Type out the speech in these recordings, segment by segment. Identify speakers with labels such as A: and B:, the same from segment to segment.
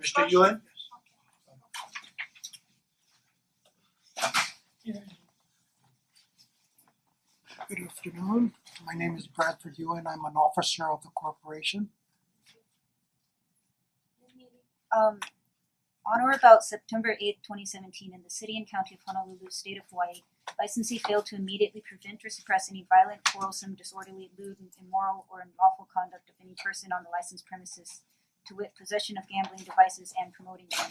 A: Mr. Yuen?
B: Good afternoon. My name is Bradford Ewan. I'm an officer of the corporation.
C: Um, on or about September eighth, twenty seventeen, in the city and county of Honolulu, state of Hawaii, licensee failed to immediately prevent or suppress any violent, quarrelsome, disorderly, lewd, immoral, or unlawful conduct of any person on the licensed premises, to wit, possession of gambling devices and promoting them,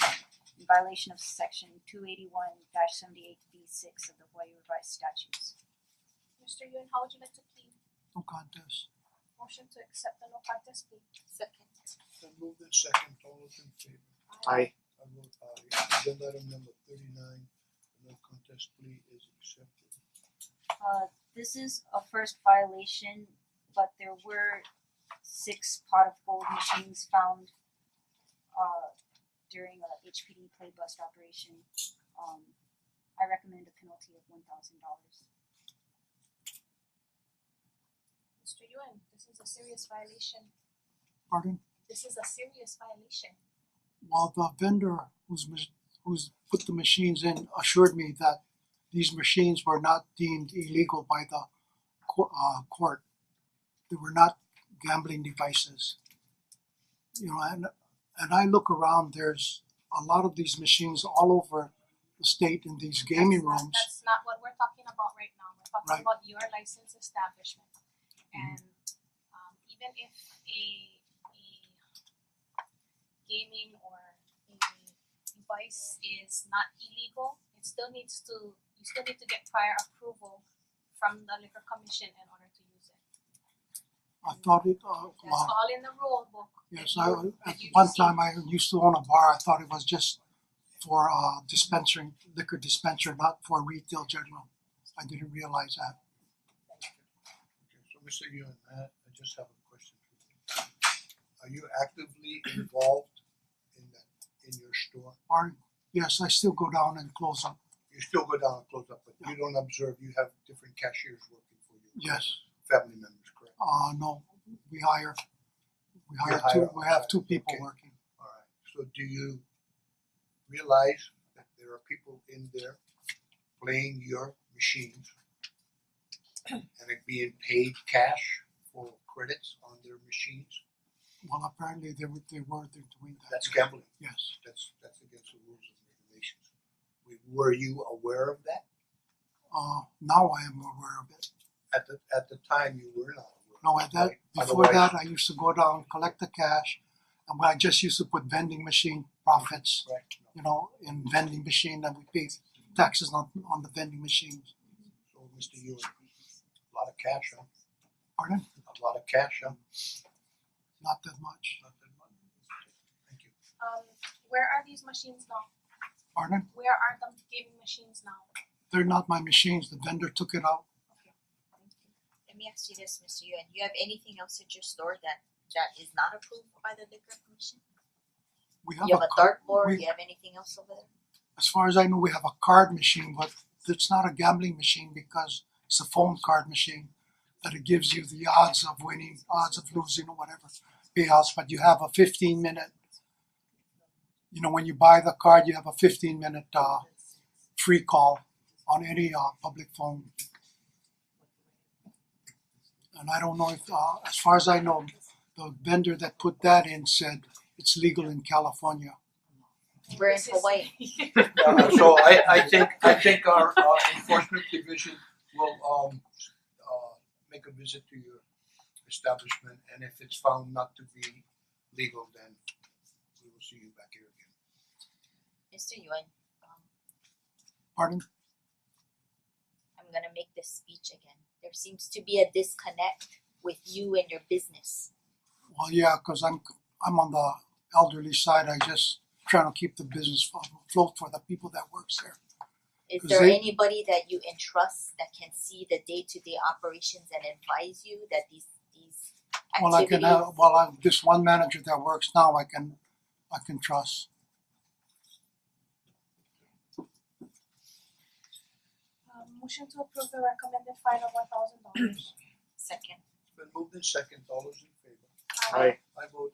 C: in violation of section two eighty-one seventy-eight B six of the Hawaii revised statutes.
D: Mister Yuen, how would you like to plead?
B: No contest.
D: Motion to accept the no contest plea.
E: Second.
A: Then move in second, all those in favor?
F: Aye.
A: I vote aye, agenda item number thirty nine, no contest plea is accepted.
C: Uh, this is a first violation, but there were six pot of gold machines found uh during a HPD play bust operation. Um, I recommend a penalty of one thousand dollars.
D: Mister Yuen, this is a serious violation.
B: Pardon?
D: This is a serious violation.
B: While the vendor who's mach- who's put the machines in assured me that these machines were not deemed illegal by the co- uh court. They were not gambling devices. You know, and and I look around, there's a lot of these machines all over the state in these gaming
D: That's not-
B: rooms.
D: That's not what we're talking about right now. We're
B: Right.
D: talking about your licensed establishment. And um even if a a gaming or a device is not illegal, it still needs to, you still need to get prior approval from the liquor commission in order to use it.
B: I thought it uh
D: That's
B: well,
D: all in the rule book. that
B: Yes,
D: you-
B: I
D: that
B: at
D: you
B: one
D: received.
B: time I used to own a bar, I thought it was just for uh dispensing liquor dispenser, not for retail general. I didn't realize that.
A: Okay, so Mister Yuen, I I just have a question for you. Are you actively involved in that, in your store?
B: Or yes, I still go down and close up,
A: You still go down and close up, but you don't observe, you have different cashiers working for you?
B: yes.
A: Family members, correct?
B: Uh no, we hire we hire
A: hire
B: two, we have two people
A: okay.
B: working.
A: Alright, so do you realize that there are people in there playing your machines? And it being paid cash for credits on their machines?
B: Well, apparently they were they were they're doing that.
A: That's gambling.
B: Yes,
A: That's that's against the rules and regulations. We- Were you aware of that?
B: uh now I am aware of it.
A: At the at the time you were not aware.
B: No, at that,
A: Right.
B: before
A: Otherwise-
B: that, I used to go down, collect the cash. And I just used to put vending machine profits
A: Right, no.
B: you know, in vending machine that we pay taxes on on the vending machine.
A: So Mister Yuen, a lot of cash, huh?
B: Pardon?
A: A lot of cash, huh?
B: Not that much.
A: Not that much. Thank you.
D: Um where are these machines now?
B: Pardon?
D: Where are the gaming machines now?
B: They're not my machines. The vendor took it out.
E: Thank you. Let me ask you this, Mister Yuen, you have anything else at your store that that is not approved by the liquor commission?
B: We have
E: You have
B: a
E: a dartboard,
B: we-
E: you have anything else over there?
B: as far as I know, we have a card machine, but it's not a gambling machine because it's a phone card machine that it gives you the odds of winning, odds of losing, or whatever payouts. But you have a 15 minute, you know, when you buy the card, you have a 15 minute uh, free call on any uh, public phone. And I don't know if, uh, as far as I know, the vendor that put that in said it's legal in California.
E: We're in
D: This is-
E: Hawaii.
A: Uh, so I I think I think our uh enforcement division will um uh make a visit to your establishment and if it's found not to be legal, then we will see you back here again.
E: Mister Yuen, um
B: Pardon?
E: I'm gonna make this speech again. There seems to be a disconnect with you and your business.
B: Well, yeah, because I'm I'm on the elderly side. I just trying to keep the business afloat for the people that works there.
E: Is
B: Is
E: there
B: it-
E: anybody that you entrust that can see the day-to-day operations and advise you that these these
B: Well, I can
E: activities?
B: have well, I, this one manager that works now, I can I can trust.
D: Um motion to approve the recommended fine of one thousand dollars.
E: Second.
A: It's been moved in second, all those in favor?
F: Aye.
A: I vote